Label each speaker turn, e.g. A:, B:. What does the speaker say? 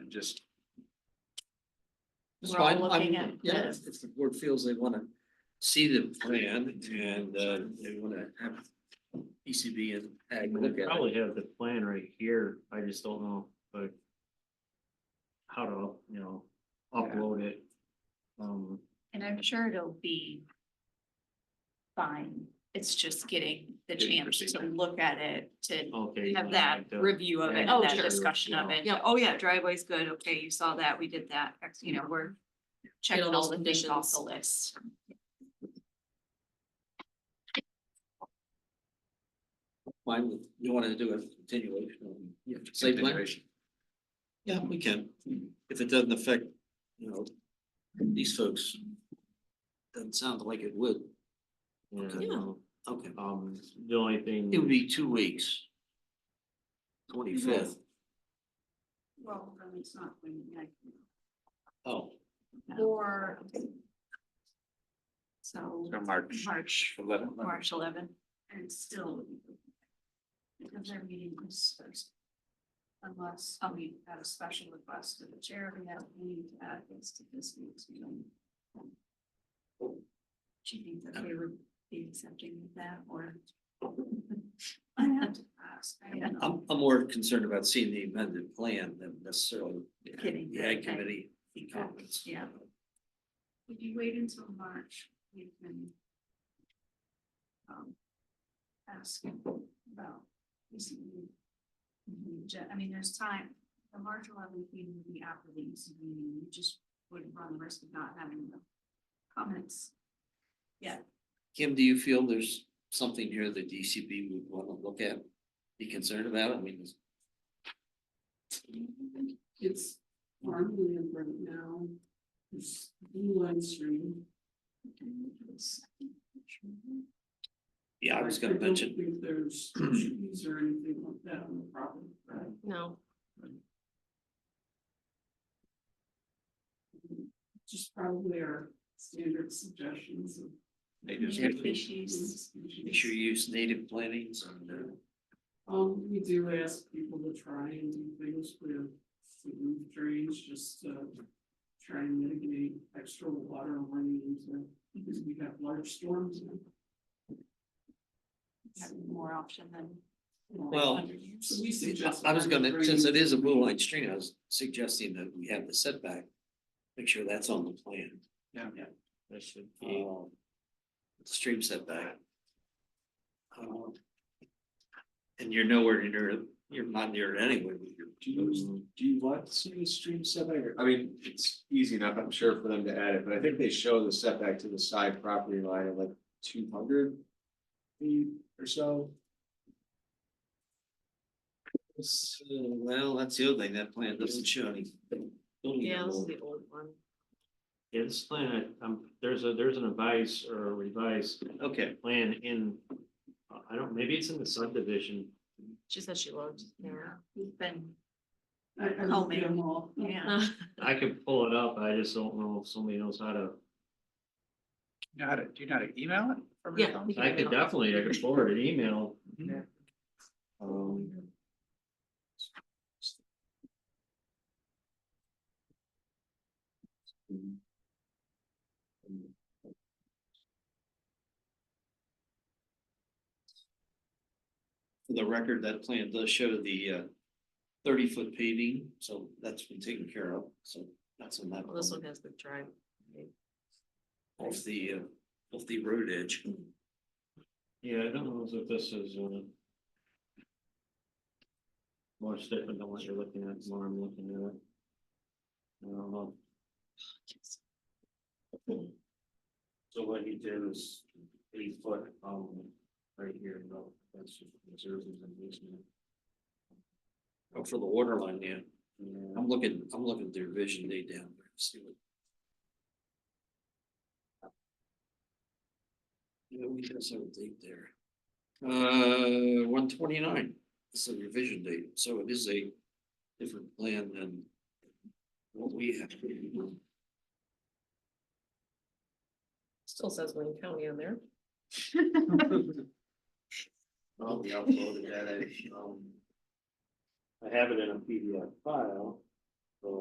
A: and just. It's
B: We're all
A: fine. I'm-
B: looking at
A: Yeah,
B: this.
A: if if the board feels they wanna see the plan and uh they wanna have ECB and ag look at it.
C: Probably have the plan right here, I just don't know, but. How to, you know, upload it. Um,
B: And I'm sure it'll be fine. It's just getting the
A: Getting
B: chance to
A: procedure.
B: look at it, to
C: okay.
B: have that
C: like the-
B: review of it,
C: yeah,
B: and that
C: sure,
B: discussion
C: you
B: of
C: know.
B: it. Oh, yeah, driveway's good. Okay, you saw that. We did that. Ex- You know, we're checking
D: all
B: all
D: those
B: the things off
D: conditions.
B: the list.
A: Fine with, you wanna do a continuation on, you know, site plan? Yeah, we can, if it doesn't affect, you know, these folks. Doesn't sound like it would.
C: Yeah,
A: Okay.
C: no,
A: Okay.
C: um, the only thing.
A: It would be two weeks. Twenty-fifth.
B: Well, it's not.
A: Oh.
B: Or. So.
A: March.
B: March,
A: Eleven.
B: March eleven. And still. Because our meeting was Thursday. Unless, I mean, had a special request to the chair, we have a meeting to add this to this week's meeting. Do you think that they would be accepting of that or? I have to ask. I don't know.
A: I'm, I'm more concerned about seeing the amended plan than necessarily. the
B: Getting the-
A: Ag committee comments.
B: Yeah. If you wait until March, you can. um, Ask about. ECB. Mhm, ju- I mean, there's time, the March eleventh meeting would be after the ECB, meeting. you just would run the risk of not having the comments.
A: Kim, do you feel there's something here that DCB would want to look at, be concerned about? I mean, it's-
E: It's farmland right now. It's beeline stream.
A: yeah, I was gonna
E: don't
A: mention,
E: think there's trees or anything like that on the property, right?
D: No,
E: Just probably our standard suggestions of.
A: They just-
B: Species.
A: make sure you use native plantings and, uh,
E: Um, we do ask people to try and do things with food drains, just to try and mitigate extra water and running into, because we have large storms. now.
B: More option than.
A: Well,
E: So we suggest.
A: I was gonna, since it is a blue line stream, I was suggesting that we have the setback, make sure that's on the plan.
C: That should be,
A: Um, Stream setback. Um, And you're nowhere near, you're not near it anyway with your
F: Do
A: Mm-hmm.
F: you, do you want to see the stream setback? I mean, it's easy enough, I'm sure, for them to add it, but I think they show the setback to the side property line of like two hundred feet or so.
A: So, Well, that's the other thing, that plan doesn't show any. building
D: yeah, this is
A: envelope.
D: the old one.
C: yeah, this plan, um, there's a, there's an advice or a revised
A: Okay,
C: plan in, uh, I don't, maybe it's in the subdivision.
D: She said she looked, yeah.
B: We've been.
E: I, I looked at them all.
B: Yeah.
C: I could pull it up, I just don't know if somebody knows how to,
G: Know how to, do you know how to email it? from your
D: Yeah.
G: phone?
D: we can
C: I
D: get
C: could
D: it on.
C: definitely, I could forward an email.
G: Yeah.
C: Um.
A: for the record, that plan does show the uh thirty foot paving, so that's been taken care of, so that's on that.
D: Well, This
A: plan.
D: one has the drive.
A: Off the uh, off the road edge.
C: Yeah, I don't know if this is, uh. More different than what you're looking at, more I'm looking at. it. I don't know.
A: So what he did is eight foot um right here, no, that's just reserves and basement. Oh, for the water line, yeah. I'm looking, I'm looking at their vision day down there, see what. Yeah, we got some date there. Uh, one twenty-nine, this is a revision date, so it is a different plan than what we have.
D: Still says Wayne County on there.
A: Well, we uploaded that, um.
C: I have it in a PDF file.